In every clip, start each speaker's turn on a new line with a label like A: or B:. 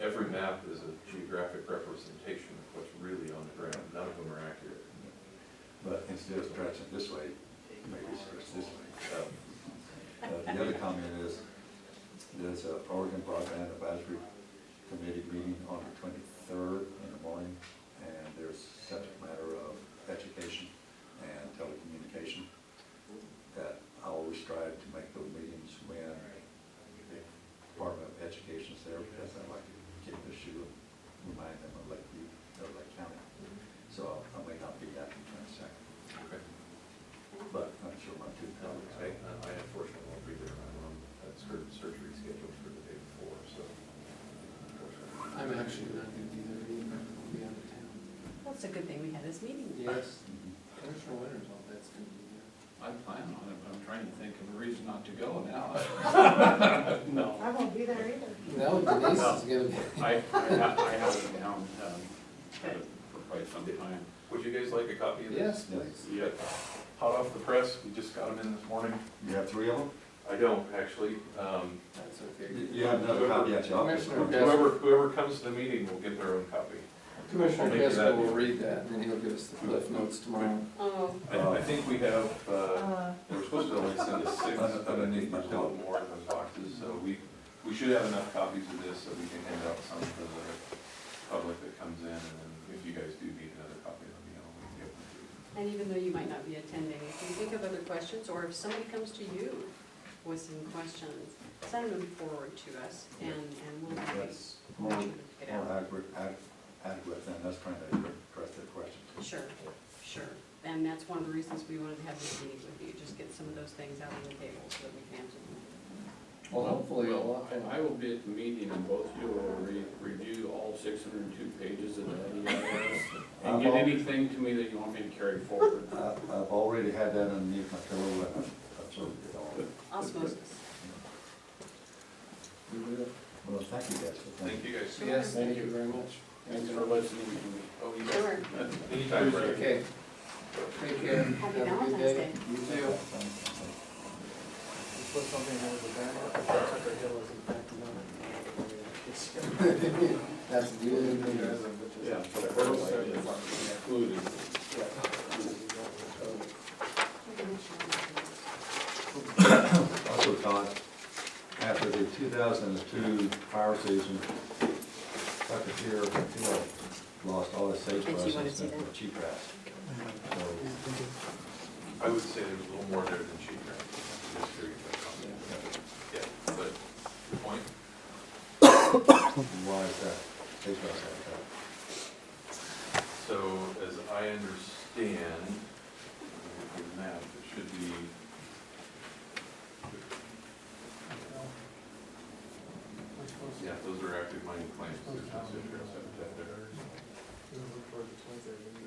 A: every map is a geographic representation of what's really on the ground, none of them are accurate.
B: But instead of stretching this way, maybe stretch this way.
A: Um,
B: Uh, The other comment is, there's a Oregon Broadband Advisory Committee meeting on the twenty-third in the morning, and there's subject matter of education and telecommunication, that I always strive to make those meetings when the Department of Education's there, because I like to get the shoe, remind them of Lake View, of Lake County. So I may not be at the twenty-second,
A: Okay.
B: but I'm sure my two
A: Um,
B: colleagues.
A: I I unfortunately won't be there, I'm on, that's surgery scheduled for the day before, so. unfortunately.
C: I'm actually not gonna be there either, I'll be out of town.
D: That's a good thing we had this meeting.
C: Yes,
B: Mhm.
C: Commissioner Winters, all that's gonna be
E: I plan on it, but I'm trying to think of a reason not to go now. No.
F: I won't be there either.
C: there. Now Denise is gonna be.
E: I, I have, I have it down, um, for quite some time.
A: Would you guys like a copy of this?
C: Yes, please.
E: Yeah,
A: Hot off the press, we just got them in this morning.
B: You have three of them?
A: I don't, actually. Um,
C: That's
B: You-
C: okay.
B: You have another copy at your office.
C: Commissioner Gass-
A: Whoever, whoever comes to the meeting will get their own copy.
C: Commissioner
A: I'll make that-
C: Casco will read that, and then he'll give us the cliff notes tomorrow.
D: Oh,
A: I, I think we have, uh,
F: Uh,
A: we're supposed to only send us six, but I think there's a lot more in those boxes, so we, we should have enough copies of this so we can hand out some to the public that comes in, and then if you guys do need another copy, let me know, we can get one to you.
D: and even though you might not be attending, if you think of other questions, or if somebody comes to you with some questions, send them forward to us, and, and we'll
B: That's
D: we'll
B: more,
D: get it
B: more
D: out.
B: adequate, ad- adequate than us trying to address their questions.
D: Sure, sure. And that's one of the reasons we wanted to have this meeting with you, just get some of those things out on the table so that we can answer them.
C: Well, hopefully, a lot,
E: And I will be at the meeting and both of you will re- review all six hundred and two pages of that. EIS, And get anything to me that you want me to carry forward.
B: I, I've already had that underneath my pillow and I've absorbed it all.
D: Osmosis.
B: Well, thank you guys for
A: Thank
B: coming.
A: you guys.
C: Yes, thank you very much.
E: Thanks for listening to me.
A: Oh, you guys.
D: Sure.
A: Anytime, Brad.
C: Okay. Take care. Have a
D: Happy
C: good
D: Valentine's
C: day.
D: Day.
C: You too.
B: Thank you.
C: Put something over the banner. That's the only thing that isn't, but just-
E: Yeah, but first, I just included.
B: also thought, after the two thousand and two fire season, Tucker Pier Hill lost all its sage
D: Did you
B: brush
D: wanna
B: and
D: see
B: sent
D: that?
B: for cheatgrass. So,
A: I would say there's a little more there than cheap grass. I'm just curious about that. Yeah, but good point.
B: why is that? Sage brush like
A: So as I understand, the map, it should be. Yeah, those are active mining claims. There's no sage grass habitat there. This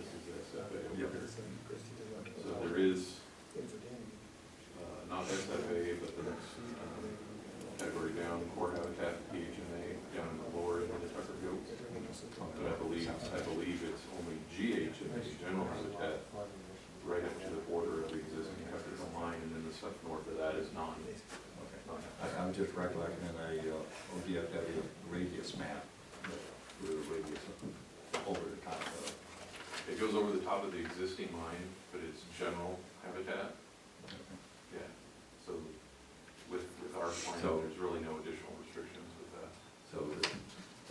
A: is SFA over here. So there is, uh, not SFA, but the next, um, category down, core habitat, PHMA, down in the lower end of the Tucker Hills. But I believe, I believe it's only GHMA, general habitat, right up to the border of the existing Tucker Hill line, and then the stuff north of that is non, non
B: that? I, I'm just recollecting in a uh, ODFW radius map, that the radius over the top of.
A: It goes over the top of the existing line, but it's general habitat, yeah. So with, with our plan,
B: So-
A: there's really no additional restrictions with that.
B: So the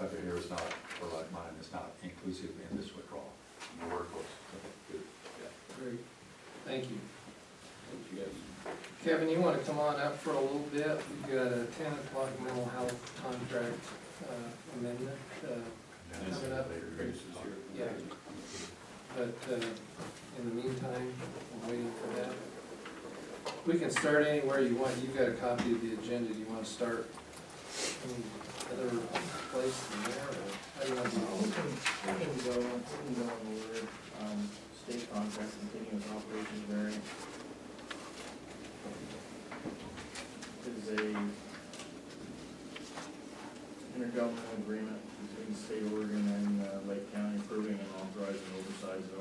B: Tucker here is not, or like mine, is not inclusive in this withdrawal.
A: Nowhere close. Good.
C: Great. Thank you.
E: Thank you guys.
C: Kevin, you wanna come on up for a little bit? We've got a ten o'clock mental health contract uh, amendment, uh, coming up. Yeah. But uh, in the meantime, we're waiting for that. We can start anywhere you want. You've got a copy of the agenda. Do you wanna start any other place than there or? how do you want to do it?
G: We can go, we can go over, um, state contracts and